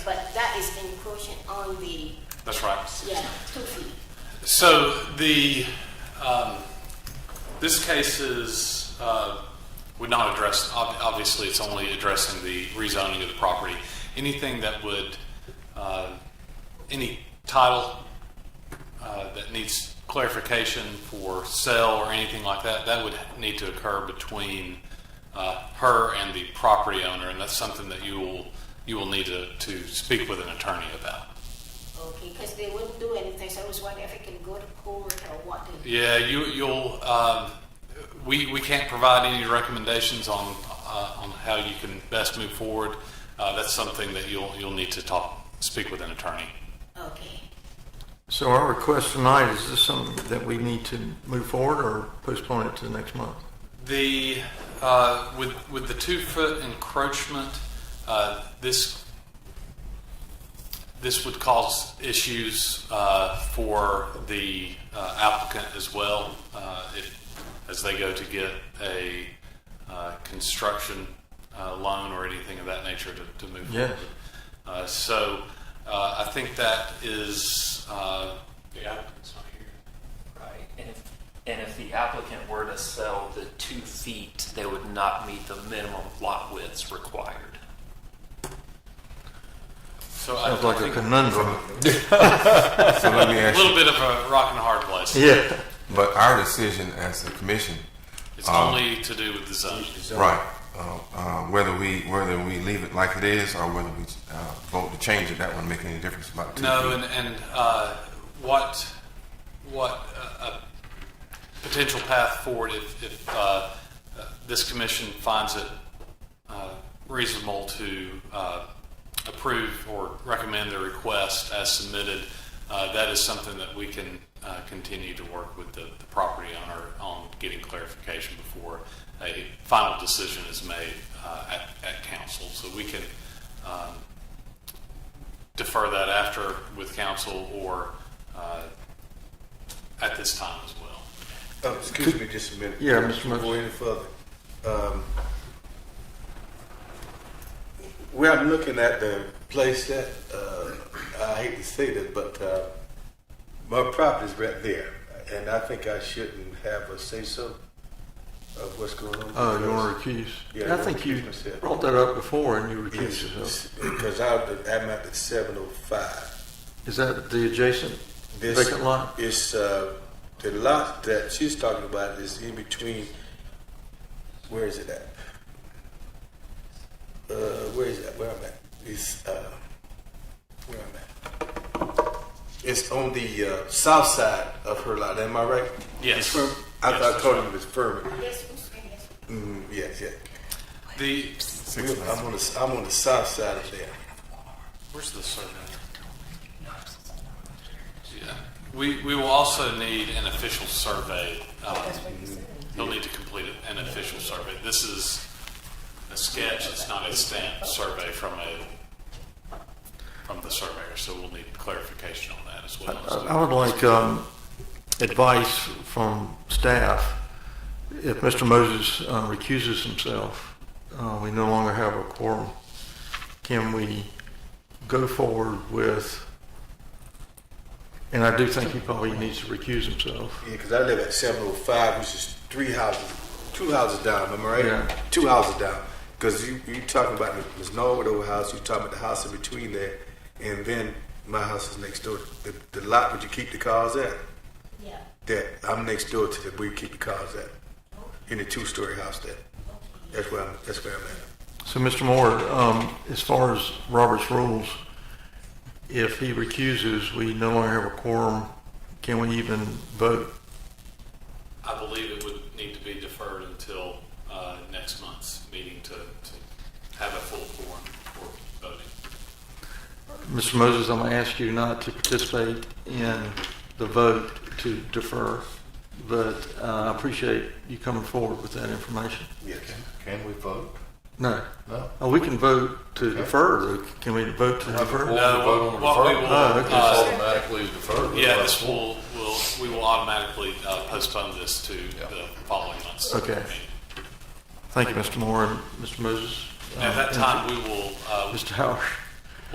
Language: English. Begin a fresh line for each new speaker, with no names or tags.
in quotient on the,
That's right.
yeah, two feet.
So the, um, this case is, uh, would not address, ob- obviously, it's only addressing the rezoning of the property. Anything that would, uh, any title uh, that needs clarification for sale or anything like that, that would need to occur between uh, her and the property owner, and that's something that you will, you will need to, to speak with an attorney about.
Okay, because they wouldn't do anything, so I was wondering if it can go to court or what. to-
Yeah, you, you'll, um, we, we can't provide any recommendations on, uh, on how you can best move forward. Uh, that's something that you'll, you'll need to talk, speak with an attorney.
Okay.
So our request tonight, is this something that we need to move forward or postpone it to the next month?
The, uh, with, with the two foot encroachment, uh, this, this would cause issues, uh, for the uh, applicant as well, uh, if, as they go to get a, uh, construction, uh, loan or anything of that nature to, to move
Yes.
forward. Uh, so, uh, I think that is, uh,
The applicant's not here.
Right, and if, and if the applicant were to sell the two feet, they would not meet the minimum lot widths required.
so I I
Sounds like a
think a
conundrum.
So let me ask
little
you,
bit of a rock and a hard place.
Yeah.
but our decision as the commission,
It's
Um,
only to do with the zone.
right? Uh, uh, whether we whether we leave it like it is or whether we uh, vote to change it, that wouldn't make any difference about two
No,
feet.
and, and uh, what what uh, a potential path forward if, if uh, uh, this commission finds it uh, reasonable to uh, approve or recommend the request as submitted, uh, that is something that we can uh, continue to work with the, the property owner on getting clarification before a final decision is made uh, at, at council. So we can um, defer that after with council or uh, at this time as well.
Uh, Excuse me just a minute.
Yeah, Mr.
Before we
Murphy.
Go any further. Um, We are looking at the place that, uh, I hate to say this, but, uh, my property's right there, and I think I shouldn't have a say-so of what's going on.
Uh, you want to recuse?
Yeah,
I
I
think you
recuse myself.
brought that up before and you recused yourself.
Yes, Because I, I'm at the seven oh five.
Is that the adjacent
This
vacant lot?
is uh, the lot that she's talking about is in between. Where is it at? Uh, where is that? Where I'm at? It's uh, where I'm at. It's on the uh, south side of her lot. Am I right?
Yes.
Furman? I
Yes,
thought I
that's
told you it was Furman.
Yes, Mr. Yes.
Mm, yes, yes.
The,
Six
We- I'm on the I'm on the south side of there.
where's the survey? Yeah, we, we will also need an official survey. Um, They'll need to complete an official survey. This is a sketch, it's not a stamped survey from a, from the surveyor, so we'll need clarification on that as well.
I I would like um, advice from staff. If Mr. Moses uh, recuses himself, uh, we no longer have a quorum. Can we go forward with, and I do think he probably needs to recuse himself.
Yeah, because I live at 705, which is three houses, two houses down. Am I right?
Yeah.
Two houses down. Because you you talking about Ms. Norwood old house, you talking about the house in between there, and then my house is next door. The, the lot where you keep the cars at,
Yeah.
that I'm next door to the where you keep the cars at, in the two-story house there. That's where I'm. That's where I'm at.
So, Mr. Moore, um, as far as Robert's rules, if he recuses, we no longer have a quorum. Can we even vote?
I believe it would need to be deferred until uh, next month's meeting to, to have a full forum for voting.
Mr. Moses, I'm going to ask you not to participate in the vote to defer, but uh, I appreciate you coming forward with that information.
Yes.
Can we vote?
No,
No.
Oh, we can vote to defer. though. Can we vote to defer?
No, what we will,
Oh, okay.
uh,
automatically deferred.
Yeah, this will, will, we will automatically uh, postpone this to the following month's
Okay.
meeting.
Thank you, Mr. Moore and Mr. Moses.
At that
Uh,
time, we will, uh,
Mr. Howard.